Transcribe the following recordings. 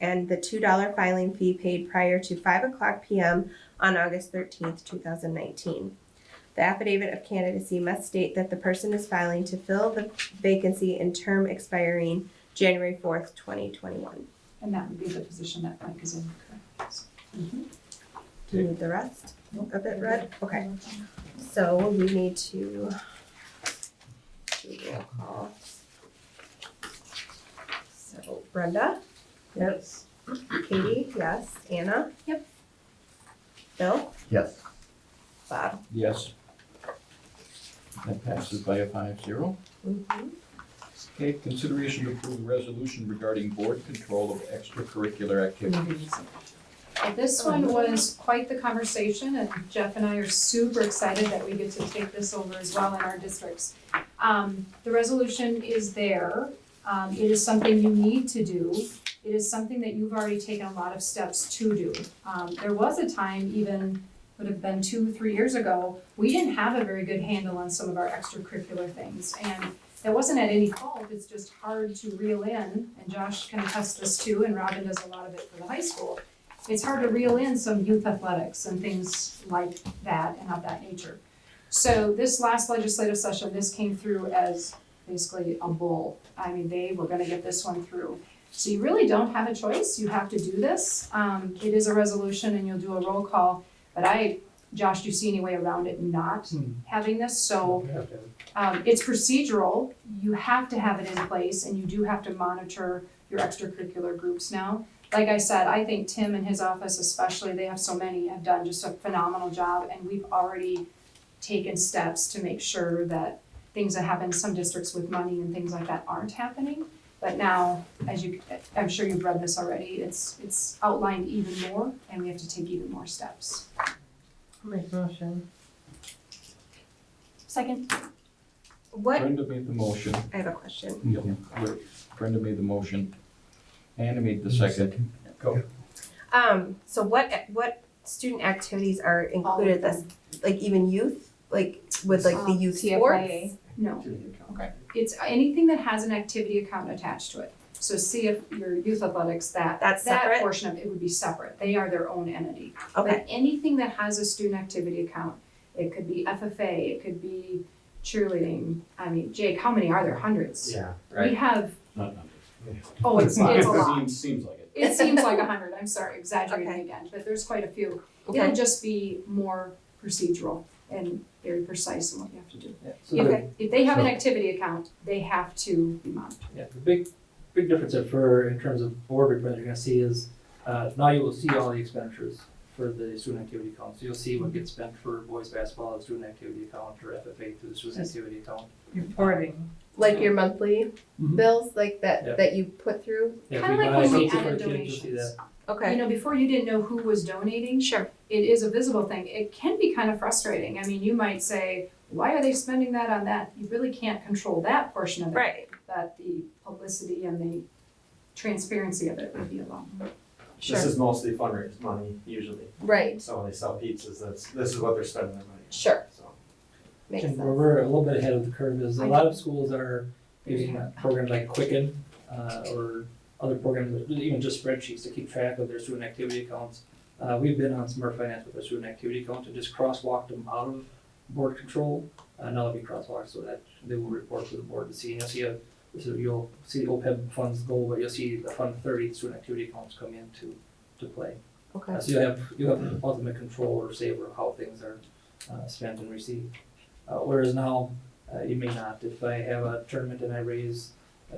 and the $2 filing fee paid prior to 5 o'clock p.m. on August 13th, 2019. The affidavit of candidacy must state that the person is filing to fill the vacancy in term expiring January 4th, 2021. And that would be the position that Mike is in, correct? Do you need the rest of it read? Okay. So we need to do a roll call. So Brenda? Yes. Katie, yes. Anna? Yep. Bill? Yes. Bob? Yes. That passes by a five zero. Mhm. Okay, consideration to approve a resolution regarding board control of extracurricular activities. Well, This one was quite the conversation, and Jeff and I are super excited that we get to take this over as well in our districts. Um, the resolution is there, um, it is something you need to do, it is something that you've already taken a lot of steps to do. Um, there was a time even, would have been two, three years ago, we didn't have a very good handle on some of our extracurricular things, and that wasn't at any fault, it's just hard to reel in, and Josh can attest this too, and Robin does a lot of it for the high school it's hard to reel in some youth athletics and things like that and of that nature. So this last legislative session, this came through as basically a bull. I mean, they were gonna get this one through. So you really don't have a choice, you have to do this. Um, it is a resolution and you'll do a roll call, but I, Josh, do you see any way around it not having this? So um, it's procedural, you have to have it in place and you do have to monitor your extracurricular groups now. Like I said, I think Tim and his office especially, they have so many, have done just a phenomenal job and we've already taken steps to make sure that things that happen in some districts with money and things like that aren't happening. But now, as you, I'm sure you've read this already, it's, it's outlined even more and we have to take even more steps. Make motion. Second. What, Brenda made the motion. I have a question. Mm-hmm. Brenda made the motion. Anna made the second. Go. Um, so what, what student activities are included this, like even youth, like with like the Um, youth TFYA. sports? No. it's anything that has an activity account attached to it. So see if your youth athletics, that, That's that separate? portion of it would be separate, they are their own entity. Okay, But anything that has a student activity account, it could be FFA, it could be cheerleading, I mean, Jake, how many are there, hundreds? Yeah, We right. have, Not numbers. oh, it's, it's a lot, Seems, seems like it. it seems like a hundred, I'm sorry, exaggerating Okay. again, but there's quite a few. okay. It'll just be more procedural and very precise in what you have to do. So the, If, if they have an So- activity account, they have to um, be monitored. Yeah, the big, big difference that for, in terms of board reporting, you're gonna see is, uh, now you will see all the expenditures for the student activity account. So you'll see what gets spent for boys basketball, the student activity account, or FFA through the student activity account. reporting. Like your monthly Mm-hmm. Mhm. bills, like that, Yeah. that you put through? Yeah, Kinda we like buy when we something for added a kid, you'll see donations. You Okay, know, before you didn't know who was donating, sure. it is a visible thing. It can be kind of frustrating. I mean, you might say, why are they spending that on that? You really can't control that portion of it. Right. But the publicity and the transparency of it would be a lot more. this is mostly fundraise money usually, Right. so when they sell pizzas, that's, this is what they're spending their money on, Sure. so. Makes And sense. where we're a little bit ahead of the curve is a I lot of schools are using a program like Quicken, uh, or other programs, even just spreadsheets to keep track of their student activity accounts. Uh, we've been on Smart Finance with our student activity account and just crosswalked them out of board control. Uh, now they'll be crosswalked, so that they will report to the board to see, and you'll see a, so you'll see the OPEB funds go, but you'll see the Fund Thirty, the student activity accounts come in to, to play. Okay. Uh, So you have, you have ultimate control or say over how things are uh, spent and received. Uh, Whereas now, uh, you may not. If I have a tournament and I raise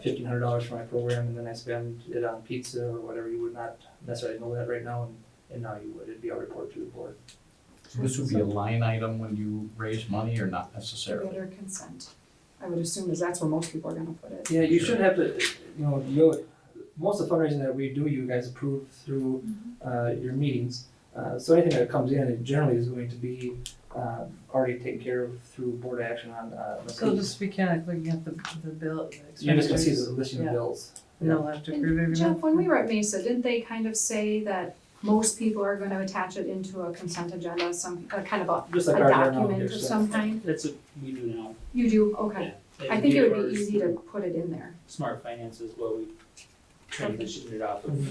fifteen hundred dollars for my program and then I spend it on pizza or whatever, you would not necessarily know that right now and, and now you would. It'd be a report to the board. This would be a line item when you raise money or not necessarily? Voter consent, I would assume, is that's where most people are gonna put it. Yeah, you should have to, you know, you, most of the fundraising that we do, you guys approve through, Mm-hmm. uh, your meetings. Uh, so anything that comes in, it generally is going to be, uh, already taken care of through board action on, uh. let's So see. just mechanically, looking at the, the bill, the You're just gonna see expenditures, the listing of Yeah. bills. and they'll have to approve every Jeff, month. when we were at Mesa, didn't they kind of say that most people are gonna attach it into a consent agenda, some, uh, kind of a, Just a like ours are now. document Here's of the- some kind? That's what we do now. You do, okay. I think it would be easy to put it in there. Mm-hmm. Smart finance is what we transitioned it off of.